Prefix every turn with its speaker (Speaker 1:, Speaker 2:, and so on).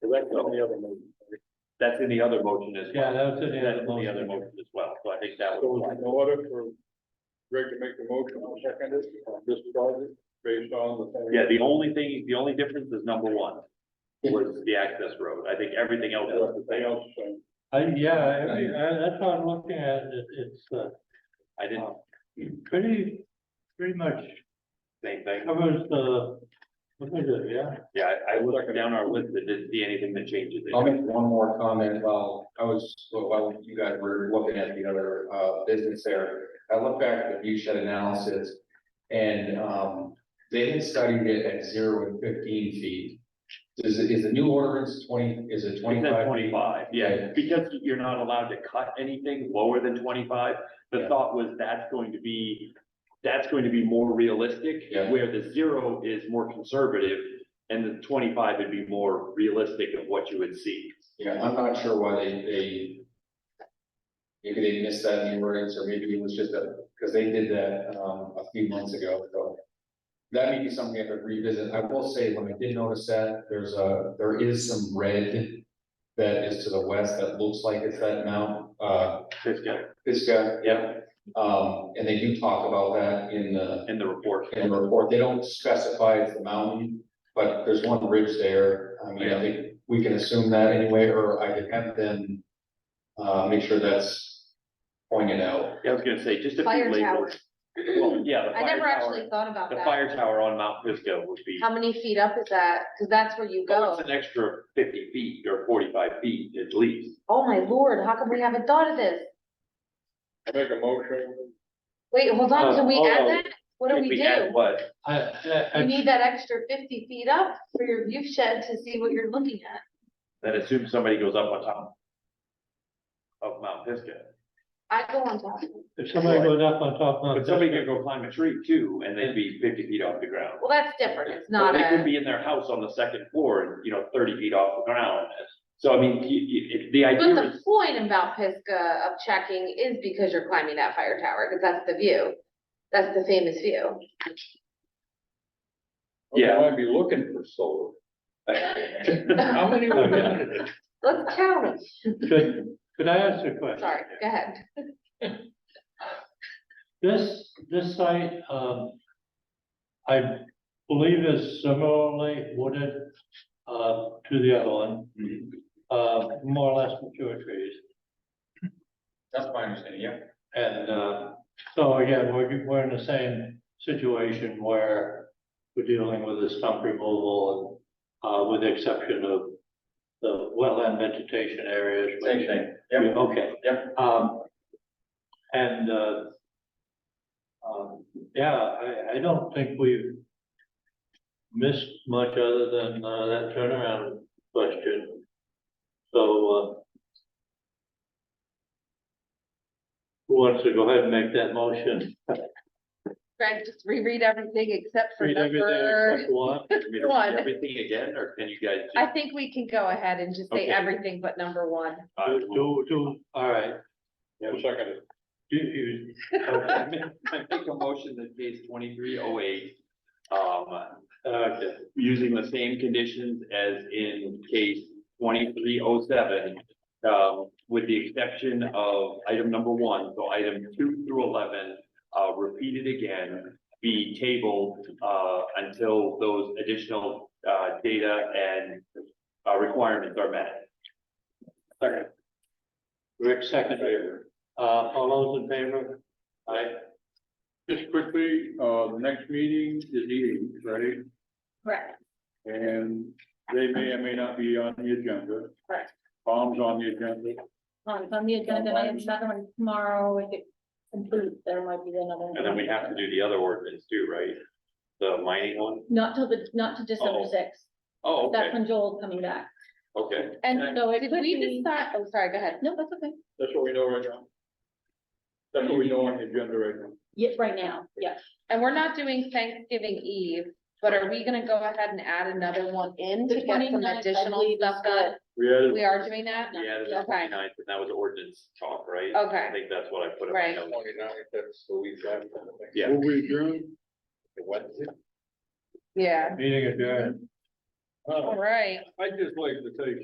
Speaker 1: that's in the other motion. That's in the other motion as
Speaker 2: Yeah,
Speaker 1: well.
Speaker 2: that was in the
Speaker 1: That's
Speaker 2: other
Speaker 1: in the other
Speaker 2: motion.
Speaker 1: motion as well, so I think that
Speaker 3: So is it
Speaker 1: was.
Speaker 3: in order for Greg to make the motion on second is, on this project, based on the.
Speaker 1: Yeah, the only thing, the only difference is number one was the access road. I think everything else is the
Speaker 3: Everything
Speaker 1: same.
Speaker 3: else is same.
Speaker 2: I, yeah, I, I, that's how I'm looking at it, it's, uh,
Speaker 1: I didn't,
Speaker 2: pretty, pretty much
Speaker 1: same thing.
Speaker 2: covers the, what is it, yeah?
Speaker 1: Yeah, I, I looked down our list and didn't see anything that changes
Speaker 4: I'll
Speaker 1: it.
Speaker 4: make one more comment while I was, while you guys were looking at the other uh business there. I looked back at the view shed analysis and um they had studied it at zero and fifteen feet. Does it, is the new ordinance twenty, is it
Speaker 1: We
Speaker 4: twenty-five?
Speaker 1: said twenty-five, yeah,
Speaker 4: Yeah.
Speaker 1: because you're not allowed to cut anything lower than twenty-five. The
Speaker 4: Yeah.
Speaker 1: thought was that's going to be, that's going to be more realistic.
Speaker 4: Yeah.
Speaker 1: Where the zero is more conservative and the twenty-five would be more realistic of what you would see.
Speaker 4: Yeah, I'm not sure why they, they. Maybe they missed that in the ordinance, or maybe it was just a, because they did that, um, a few months ago, so. That may be something I could revisit. I will say, when I did notice that, there's a, there is some red. That is to the west that looks like it's that Mount, uh,
Speaker 1: Just get-
Speaker 4: Pisgah,
Speaker 1: yeah,
Speaker 4: um, and they do talk about that in the,
Speaker 1: in the report.
Speaker 4: in the report. They don't specify it's the mountain. But there's one ridge there, I mean, I think we can assume that anyway, or I could have them. Uh, make sure that's pointed out.
Speaker 1: Yeah, I was gonna say, just a
Speaker 5: Fire
Speaker 1: few labels. Well, yeah, the
Speaker 5: I
Speaker 1: fire
Speaker 5: never
Speaker 1: tower,
Speaker 5: actually thought about
Speaker 1: the
Speaker 5: that.
Speaker 1: fire tower on Mount Pisco would be.
Speaker 5: How many feet up is that? Cause that's where you
Speaker 1: Oh,
Speaker 5: go.
Speaker 1: It's an extra fifty feet or forty-five feet at least.
Speaker 5: Oh my lord, how come we haven't thought of this?
Speaker 3: I make a motion,
Speaker 5: Wait, hold on, can we
Speaker 1: Uh,
Speaker 5: add
Speaker 1: oh,
Speaker 5: that? What do
Speaker 1: If
Speaker 5: we
Speaker 1: add
Speaker 5: do?
Speaker 1: What?
Speaker 2: I, I,
Speaker 5: You
Speaker 2: I-
Speaker 5: need that extra fifty feet up for your view shed to see what you're looking at.
Speaker 1: That assumes somebody goes up on top. Of Mount Pisgah,
Speaker 5: I go on top.
Speaker 2: if somebody goes up on top of.
Speaker 1: but somebody could go climb a tree too, and they'd be fifty feet off the ground.
Speaker 5: Well, that's different. It's
Speaker 1: Or
Speaker 5: not
Speaker 1: They could
Speaker 5: a,
Speaker 1: be in their house on the second floor, and you know, thirty feet off the ground, so I mean, you, you, it- the
Speaker 5: but
Speaker 1: idea
Speaker 5: the
Speaker 1: is,
Speaker 5: point about Pisgah of checking is because you're climbing that fire tower, cause that's the view. That's the famous view.
Speaker 3: Okay,
Speaker 1: Yeah.
Speaker 3: I might be looking for solar. How many? we got?
Speaker 5: Let's count 'em.
Speaker 2: Could, could I ask a question?
Speaker 5: Sorry, go ahead.
Speaker 2: This, this site, um, I believe is similarly wooded, uh, to the other one.
Speaker 4: Mm-hmm.
Speaker 2: Uh, more or less mature trees.
Speaker 4: That's my understanding, yeah.
Speaker 2: And, uh, so again, we're, we're in the same situation where we're dealing with the stump removal and, uh, with the exception of the wetland vegetation areas. which-
Speaker 4: Same thing, yeah.
Speaker 2: Okay.
Speaker 4: Yeah.
Speaker 2: Um, and, uh, um, yeah, I, I don't think we've missed much other than, uh, that turnaround question. So, uh, who wants to go ahead and make that motion?
Speaker 5: Greg, just reread everything except for
Speaker 2: Read everything
Speaker 5: number.
Speaker 2: except one.
Speaker 1: I mean,
Speaker 5: One.
Speaker 1: everything again, or can you guys? do-
Speaker 5: I think we can go ahead and just say
Speaker 1: Okay.
Speaker 5: everything but number one.
Speaker 1: Uh,
Speaker 2: Do, do, do, all right.
Speaker 3: Yeah, second.
Speaker 2: Do you-
Speaker 1: I make I make a motion that pays twenty-three oh eight. Um,
Speaker 2: okay.
Speaker 1: using the same conditions as in case twenty-three oh seven. Um, with the exception of item number one, so item two through eleven, uh, repeated again. Be tabled, uh, until those additional, uh, data and, uh, requirements are met.
Speaker 2: Second. Rick, second favor. Uh, all those in favor? Aye.
Speaker 3: Just quickly, uh, the next meeting is eating, right?
Speaker 5: Right.
Speaker 3: And they may or may not be on the agenda.
Speaker 5: Correct.
Speaker 3: Bombs on the agenda.
Speaker 6: On, on the agenda, I have another one tomorrow, if it concludes, there might be another one.
Speaker 1: And then we have to do the other ordinance too, right? The mining one?
Speaker 6: Not till the, not to December
Speaker 1: Oh,
Speaker 6: sixth,
Speaker 1: Oh, okay,
Speaker 6: that's when Joel's coming back,
Speaker 1: okay.
Speaker 6: and so it
Speaker 5: Did
Speaker 6: could
Speaker 5: we
Speaker 6: be,
Speaker 5: decide, oh, sorry, go ahead.
Speaker 6: no, that's okay,
Speaker 3: That's what we know right now. That's what we know on the agenda right now.
Speaker 6: yeah, right now, yeah.
Speaker 5: And we're not doing Thanksgiving Eve, but are we gonna go ahead and add another one in to
Speaker 6: The
Speaker 5: get some
Speaker 6: 29th, I
Speaker 5: additional
Speaker 6: believe, is
Speaker 5: stuff done?
Speaker 3: We added,
Speaker 5: We are doing that?
Speaker 1: Yeah, the
Speaker 5: Okay.
Speaker 1: 29th, and that was ordinance talk, right?
Speaker 5: Okay.
Speaker 1: I think that's what I put in my
Speaker 5: Right.
Speaker 1: notes.
Speaker 4: Twenty-nine, that's the week after.
Speaker 1: Yeah.
Speaker 3: will we adjourn?
Speaker 4: Wednesday?
Speaker 5: Yeah,
Speaker 2: Meeting adjourned.
Speaker 3: Uh,
Speaker 5: all right.
Speaker 3: I'd just like to take